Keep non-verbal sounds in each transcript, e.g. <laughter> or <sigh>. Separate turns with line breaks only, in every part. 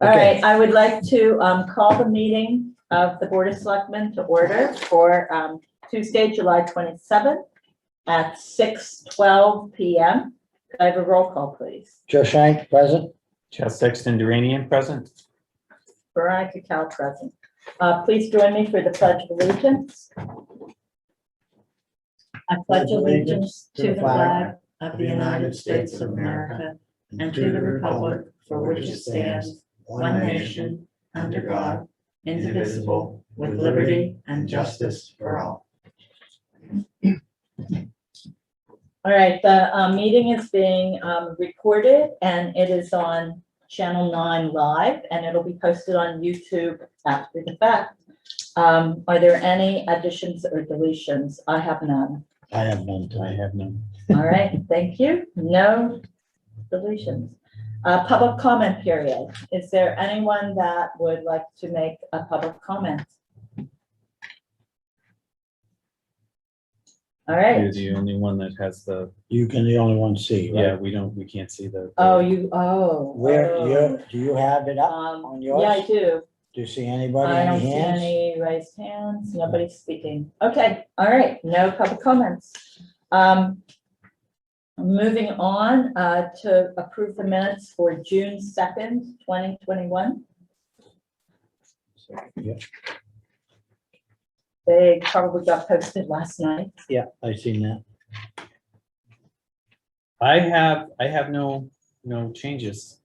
All
Okay.
right, I would like to um, call the meeting of the Board of Selectmen to order for um, Tuesday, July 27th at 6:12 PM. Could I have a roll call, please?
Joe Shank, present.
Chad Sexton Duranian present.
Veronica Cal present. Uh, Please join me for the pledge of allegiance.
I pledge allegiance to the flag of the United States of America and to the republic for which it stands, one nation, under God, indivisible, with liberty and justice for all.
All right, the uh, meeting is being um, recorded and it is on Channel 9 Live and it'll be posted on YouTube after the fact. Um, Are there any additions or deletions? I have none.
I have none
I
tonight.
have none.
All right, <laughs> thank you. No deletions. Uh, Public comment period. Is there anyone that would like to make a public comment? All right.
You're the only one that has the,
You can the only one see,
yeah,
right?
we don't, we can't see the.
Oh, you, oh.
Where,
Uh,
oh.
you, do you have it up?
Um,
on
yeah, I
yours?
do.
Do you see anybody,
I don't
any
see
hands?
any raised hands, nobody's speaking. Okay, all right, no public comments. Um, moving on, uh, to approve the minutes for June second, twenty twenty-one.
Yep.
They probably got posted last night.
Yeah, I seen that.
I have, I have no, no changes.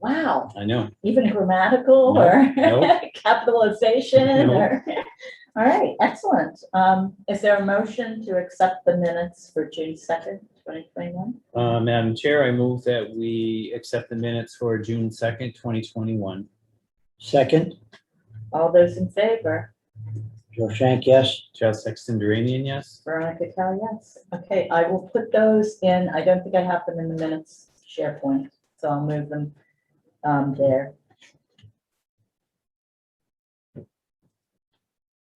Wow,
I know.
even grammatical
No,
or <laughs>
no.
capitalization
No.
or, <laughs> all right, excellent. Um, is there a motion to accept the minutes for June second, twenty twenty-one?
Uh, Madam Chair, I move that we accept the minutes for June second, twenty twenty-one.
Second,
All those in favor?
Joe Shank, yes.
Chad Sexton Duranian, yes.
Veronica Cal, yes. Okay, I will put those in. I don't think I have them in the minutes SharePoint, so I'll move them um, there.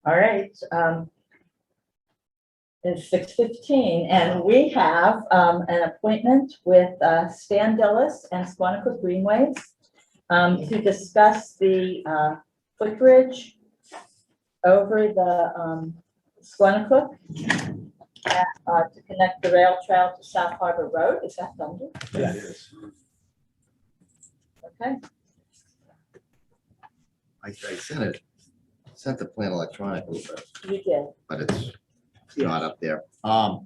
All right. um, It's six fifteen and we have um, an appointment with uh, Stan Dillis and Squanico Greenways um, to discuss the uh, footbridge over the um, Squanicook uh, to connect the rail trail to South Harbor Road. Is that Thunder?
Yeah.
Okay,
I, I sent it, sent the plan electronically, but,
you did.
but it's not up there. Um,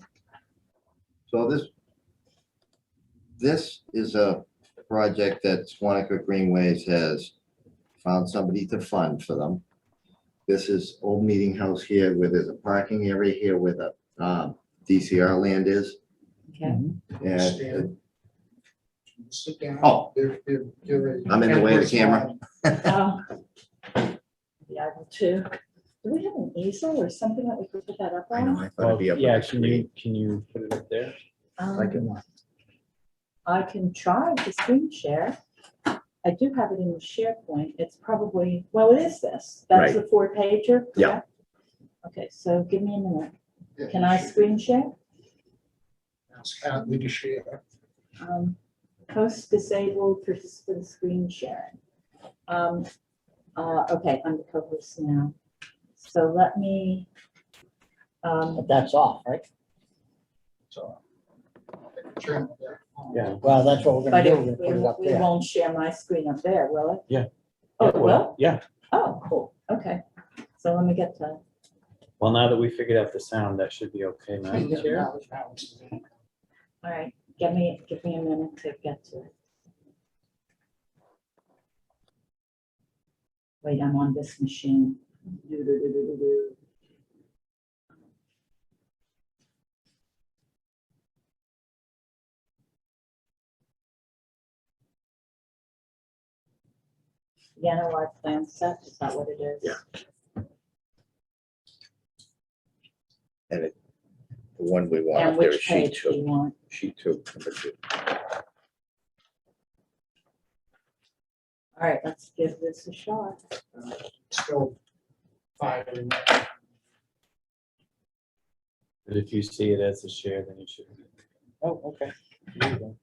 so this, this is a project that Swanaka Greenways has found somebody to fund for them. This is old meeting house here where there's a parking area here where the, um, DCR land is.
Okay.
And,
Sit down.
oh,
They're- they're- they're a-
I'm in the way of the camera.
Um, The item two. Do we have an easel or something that we could put that up
I know,
on?
I thought it'd be up.
Well, Yeah, can you, can you put it up there?
Um, I can try to screen share. I do have it in the SharePoint. It's probably, well, it is this. That's
Right.
the four pager.
Yeah.
correct? Okay, so give me a minute.
Yeah,
Can I screen share?
It's kind of the share.
um, post disabled participant screen sharing. Um, uh, okay, I'm the co-host now. So let me, um,
But that's off, right?
So. Turn uh, it down.
Yeah.
Well, that's what we're
but
gonna do.
it-
We're gonna
we
put it up
we
there.
won't share my screen up there, will it?
Yeah.
Oh, it will?
Yeah,
Oh, cool. Okay. So let me get to,
well, now that we figured out the sound, that should be okay, Madam
Yeah,
Chair.
now it's- now it's-
all right, give me, give me a minute to get to it. Wait, I'm on this machine. Do-do-do-do-do-do. Yanawar plan set, is that what it is?
Yeah. The one we want
And
up there is
which
sheet
page do
two,
you want?
sheet two, number two.
All right, let's give this a shot.
Still five. in there.
But if you see it as a share, then you should. Oh, okay. There you go.